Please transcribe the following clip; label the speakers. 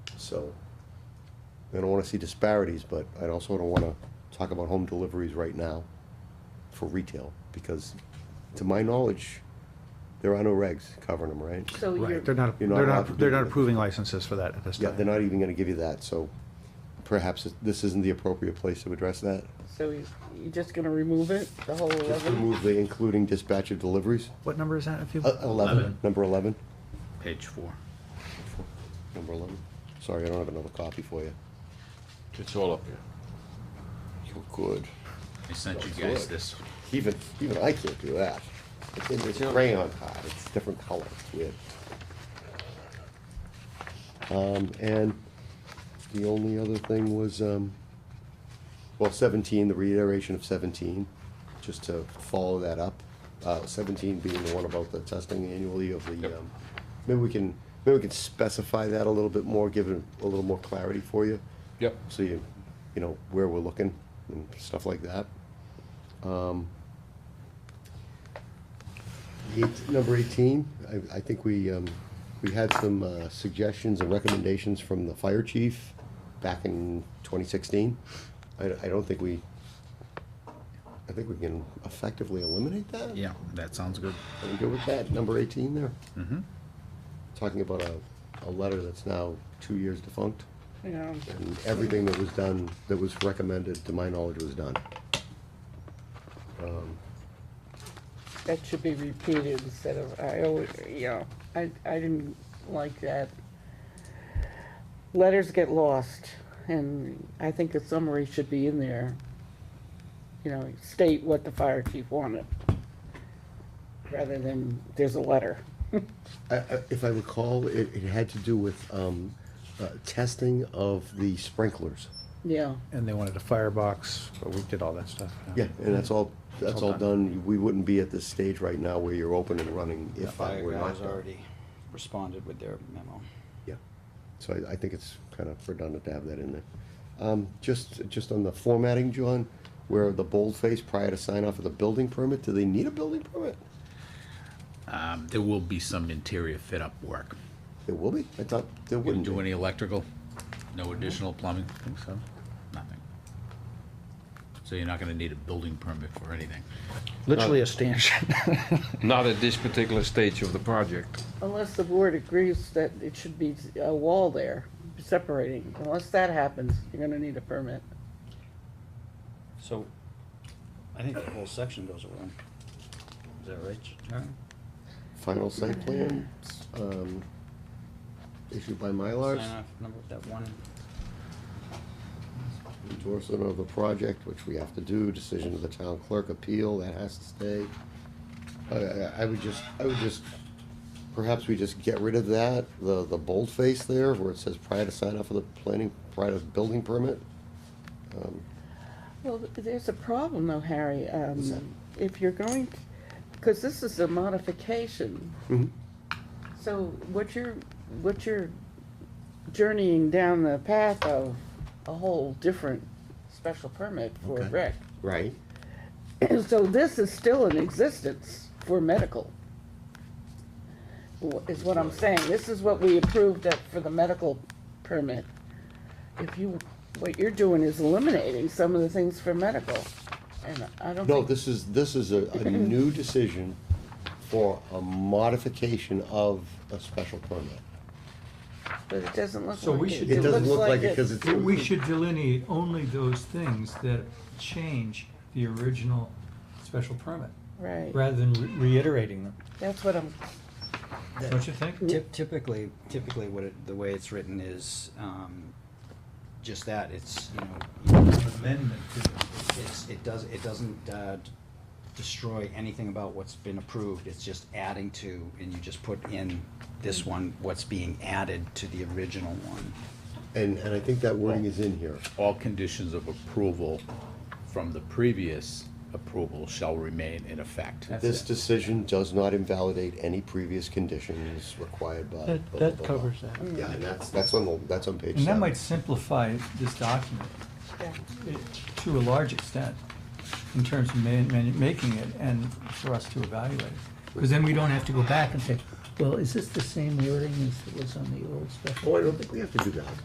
Speaker 1: so I don't wanna see disparities, but I also don't wanna talk about home deliveries right now for retail, because to my knowledge, there are no regs covering them, right?
Speaker 2: So you're,
Speaker 3: Right, they're not,
Speaker 1: You're
Speaker 3: they're
Speaker 1: not allowed
Speaker 3: not,
Speaker 1: to do
Speaker 3: they're not
Speaker 1: that.
Speaker 3: approving licenses for that at this
Speaker 1: Yeah, they're
Speaker 3: time.
Speaker 1: not even gonna give you that, so perhaps this isn't the appropriate place to address that.
Speaker 2: so you- you're just gonna remove it, the whole
Speaker 1: Just
Speaker 2: eleven?
Speaker 1: remove the including dispatch of deliveries,
Speaker 3: What number is that, if you?
Speaker 1: Uh, eleven,
Speaker 4: Eleven.
Speaker 1: number eleven,
Speaker 4: Page four.
Speaker 1: number eleven. Sorry, I don't have another copy for you.
Speaker 5: It's all up here.
Speaker 1: You're good.
Speaker 4: I sent you
Speaker 1: That's
Speaker 4: guys
Speaker 1: good.
Speaker 4: this.
Speaker 1: Even, even I can't do that. It's in this crayon card, it's different color, it's weird. Um, and the only other thing was, um, well, seventeen, the reiteration of seventeen, just to follow that up. Uh, seventeen being the one about the testing annually of the,
Speaker 5: Yep.
Speaker 1: um, maybe we can, maybe we can specify that a little bit more, give it a little more clarity for you.
Speaker 5: Yep.
Speaker 1: So you, you know, where we're looking and stuff like that. Um, eight- Number eighteen, I, I think we, um, we had some uh, suggestions and recommendations from the fire chief back in twenty sixteen. I, I don't think we, I think we can effectively eliminate that?
Speaker 4: Yeah, that sounds good.
Speaker 1: Are we good with that, number eighteen there? Mm-hmm. Talking about a, a letter that's now two years defunct.
Speaker 2: Yeah.
Speaker 1: And everything that was done, that was recommended, to my knowledge, was done.
Speaker 2: That should be repeated instead of, I always, you know, I, I didn't like that. Letters get lost, and I think a summary should be in there. You know, state what the fire chief wanted, rather than there's a letter.
Speaker 1: I- I- If I recall, it, it had to do with um, uh, testing of the sprinklers.
Speaker 2: Yeah,
Speaker 3: And they wanted a firebox, but we did all that stuff.
Speaker 1: Yeah, and that's all, that's
Speaker 3: It's
Speaker 1: all
Speaker 3: all
Speaker 1: done. We wouldn't be at this stage right now where you're open and running if that were not
Speaker 6: Fireground's
Speaker 1: done.
Speaker 6: already responded with their memo.
Speaker 1: Yeah, so I, I think it's kind of redundant to have that in there. Um, just, just on the formatting, John, where the boldface prior to sign off of the building permit, do they need a building permit?
Speaker 4: Um, there will be some interior fit up work.
Speaker 1: There will be, I thought there
Speaker 4: You gonna
Speaker 1: wouldn't be.
Speaker 4: do any electrical? No additional plumbing? Think so? Nothing. So you're not gonna need a building permit for anything.
Speaker 1: Uh,
Speaker 3: Literally a stanchion.
Speaker 5: Not at this particular stage of the project.
Speaker 2: unless the board agrees that it should be a wall there separating. Unless that happens, you're gonna need a permit.
Speaker 6: So, I think that whole section goes around. Is that right? Sharon?
Speaker 1: Final site plan, um, issued by Mylars,
Speaker 6: Sign off, number, that one,
Speaker 1: endorsement of the project, which we have to do, decision of the town clerk, appeal, that has to stay. I, I, I would just, I would just, perhaps we just get rid of that, the, the boldface there, where it says prior to sign off for the planning, prior to building permit.
Speaker 2: Well, th- there's a problem though, Harry. Um,
Speaker 1: What's that?
Speaker 2: If you're going, because this is a modification.
Speaker 1: Mhm.
Speaker 2: So what you're, what you're journeying down the path of a whole different special permit for
Speaker 1: Okay.
Speaker 2: rec.
Speaker 1: Right.
Speaker 2: So this is still in existence for medical. wh- Is what I'm saying. This is what we approved at, for the medical permit. If you, what you're doing is eliminating some of the things for medical. And I don't
Speaker 1: No,
Speaker 2: think,
Speaker 1: this is, this is a, a new decision for a modification of a special permit.
Speaker 2: but it doesn't look like it.
Speaker 7: So we should
Speaker 1: It doesn't
Speaker 2: looks
Speaker 1: look like it, cause it's.
Speaker 7: But we should delineate only those things that change the original special permit,
Speaker 2: Right,
Speaker 7: rather than re- reiterating them,
Speaker 2: that's what I'm,
Speaker 7: don't you think?
Speaker 6: Typ- typically, typically what it, the way it's written is, um, just that, it's, you know,
Speaker 7: Amendment to the.
Speaker 6: it's, it does, it doesn't, uh, d- destroy anything about what's been approved, it's just adding to, and you just put in this one, what's being added to the original one.
Speaker 1: And, and I think that wording is in here.
Speaker 4: All conditions of approval from the previous approval shall remain in effect.
Speaker 1: This decision does not invalidate any previous conditions required by. blah,
Speaker 7: That,
Speaker 1: blah,
Speaker 7: that
Speaker 1: blah, blah.
Speaker 7: covers that.
Speaker 1: Yeah, and that's, that's on, the that's on page
Speaker 7: And that
Speaker 1: seven.
Speaker 7: might simplify this document
Speaker 2: yeah.
Speaker 7: eh, to a large extent, in terms of man, man, making it and for us to evaluate. Because then we don't have to go back and say, well, is this the same wording as it was on the old special?
Speaker 1: Oh, I don't think we have to do that.